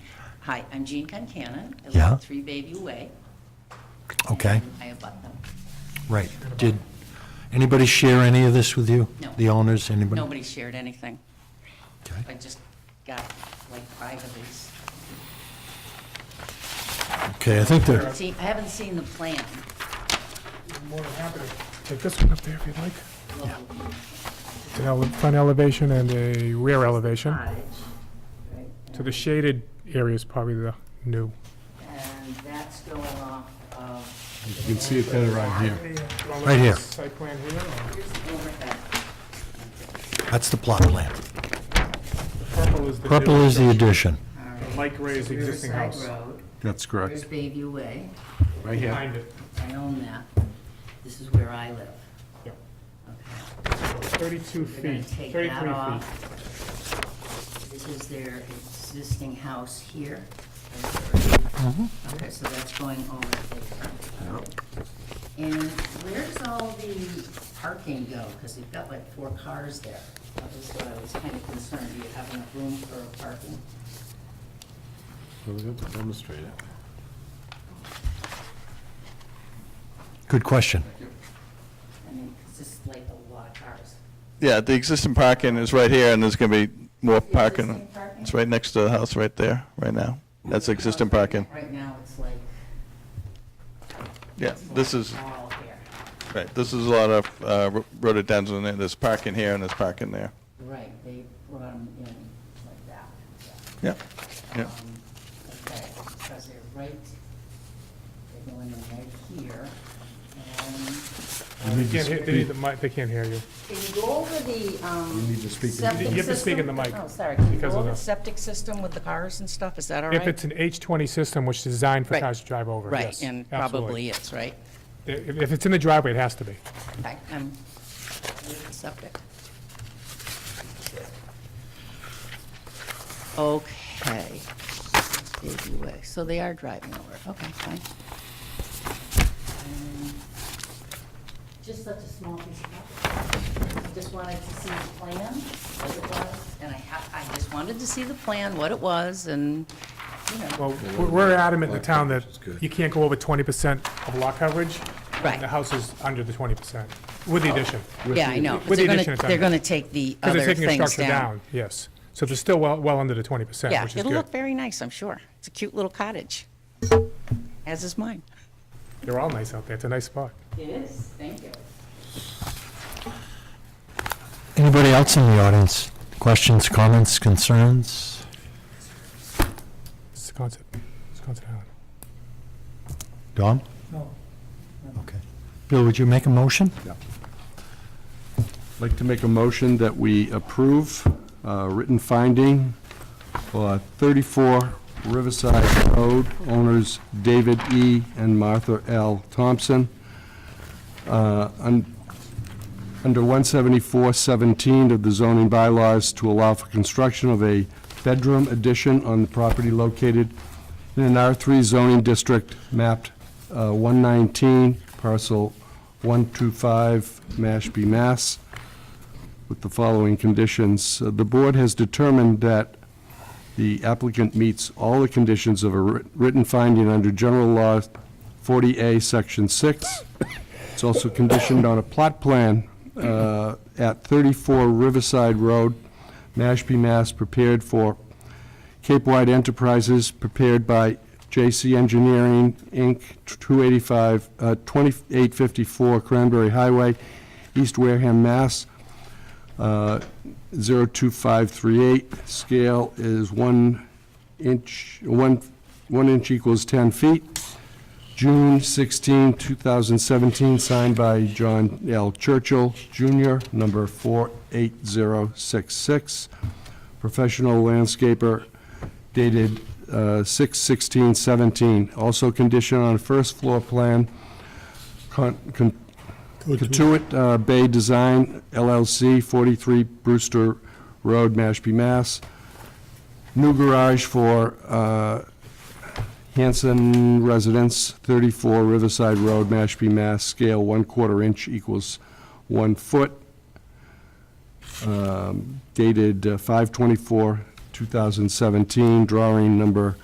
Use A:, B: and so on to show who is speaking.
A: Hi, I'm Jean Concanon. I live
B: Yeah.
A: at Three Baby Way.
B: Okay,
A: and I abut them.
B: right. Did anybody share any of this with you?
A: No.
B: The owners, anybody?
A: Nobody shared anything.
B: Okay.
A: I just got like five of these.
B: Okay, I think they're,
A: See, I haven't seen the plan.
C: More than happy to take this one up there if you'd like.
A: Well,
C: An ele- front elevation and a rear elevation.
A: cottage, right,
C: So the shaded area is probably the new.
A: And that's going off of
D: You can see it better right here.
C: uh,
B: Right here.
C: Site plan here, Uh, or-
A: overhead.
B: that's the plot plan.
C: the purple is the. new-
B: Purple is the addition.
A: All right.
C: Light gray is the existing
A: Riverside
C: house.
A: Road,
D: That's
A: There's
D: correct,
A: Bayview Way.
D: right here.
C: Behind it,
A: I own that. This is where I live.
C: Yep.
A: Okay.
C: thirty-two
A: We're gonna
C: feet,
A: take
C: thirty-three
A: that
C: feet.
A: off. This is their existing house here. Okay, so that's going over there. And where's all the parking go? Because you've got like four cars there. That was what I was kind of concerned. Do you have enough room for parking?
D: Well, we have to Demonstrate it.
B: Good question.
A: I mean, it's just like a lot of cars.
E: Yeah, the existing parking is right here, and there's going to be more
A: Existing
E: parking.
A: parking?
E: It's right next to the house right there, right now. That's existing
A: Right-
E: parking.
A: Right now, it's like.
E: Yeah,
A: it's
E: this
A: like
E: is,
A: All here.
E: right, this is a lot of uh, ro- rhododendron, and there's parking here and there's parking there.
A: Right, they brought them in like that. yeah.
E: Yeah, yeah.
A: Um, Okay, because they're right, they're going in right here. um,
C: They can't hear, they need the mic, they can't hear you.
A: Can you go over the, um.
D: You need to speak in the-
A: septic
C: You have to speak in the
A: system?
C: mic,
A: Oh, sorry, can you go
C: because of
A: over the
C: the-
A: septic system with the cars and stuff, is that all
C: If
A: right?
C: it's an H twenty system, which is designed for
A: Right.
C: cars to drive over,
A: Right,
C: yes,
A: and
C: absolutely.
A: probably is, right?
C: If, if it's in the driveway, it has to be.
A: Okay, um, septic. Okay. Baby way. So they are driving over. it. Okay, fine. Um, Just such a small piece of property. I just wanted to see the plan, what it was, and I ha I just wanted to see the plan, what it was, and, you know,
C: Well, we're- we're adamant in the town that
D: It's good.
C: you can't go over twenty percent of lot coverage. and
A: Right.
C: The house is under the twenty percent, with the addition.
A: yeah, I know. 'cause
C: Oh. With the
A: they're gonna-
C: addition of time.
A: They're gonna take the
C: Because they're
A: other
C: taking the
A: things
C: structure
A: down.
C: down, yes. So they're still well, well under the twenty percent,
A: Yeah,
C: which is
A: it'll
C: good.
A: look very nice, I'm sure. It's a cute little cottage, as is mine.
C: They're all nice out there, it's a nice spot.
A: It is, thank you.
B: Anybody else in the audience? Questions, comments, concerns?
C: It's a concept, it's a concept island.
B: Dom?
A: No.
B: Okay. Bill, would you make a motion?
D: I'd like to make a motion that we approve uh, written finding for 34 Riverside Road, owners David E. and Martha L. Thompson, uh, un- under 174-17 of the zoning bylaws to allow for construction of a bedroom addition on the property located in an R3 zoning district mapped uh, 119, parcel 125, Mashpee, Mass with the following conditions. Uh, The board has determined that the applicant meets all the conditions of a writ- written finding under General Law 40A, Section 6. It's also conditioned on a plot plan uh, at 34 Riverside Road, Mashpee, Mass., prepared for Cape Wide Enterprises, prepared by J.C. Engineering, Inc., 285, uh, 2854 Cranberry Highway, East Wareham, Mass., uh, 02538, scale is 1 inch, 1, 1 inch equals 10 feet. June 16, 2017, signed by John L. Churchill Jr., number 48066. Professional landscaper dated uh, 6/16/17. Also conditioned on first floor plan con- con- Katuitt uh, Bay Design LLC, 43 Brewster Road, Mashpee, Mass. New garage for uh, Hanson Residence, 34 Riverside Road, Mashpee, Mass. Scale 1 quarter inch equals 1 foot. uh, Um, Dated 5 2017 drawing number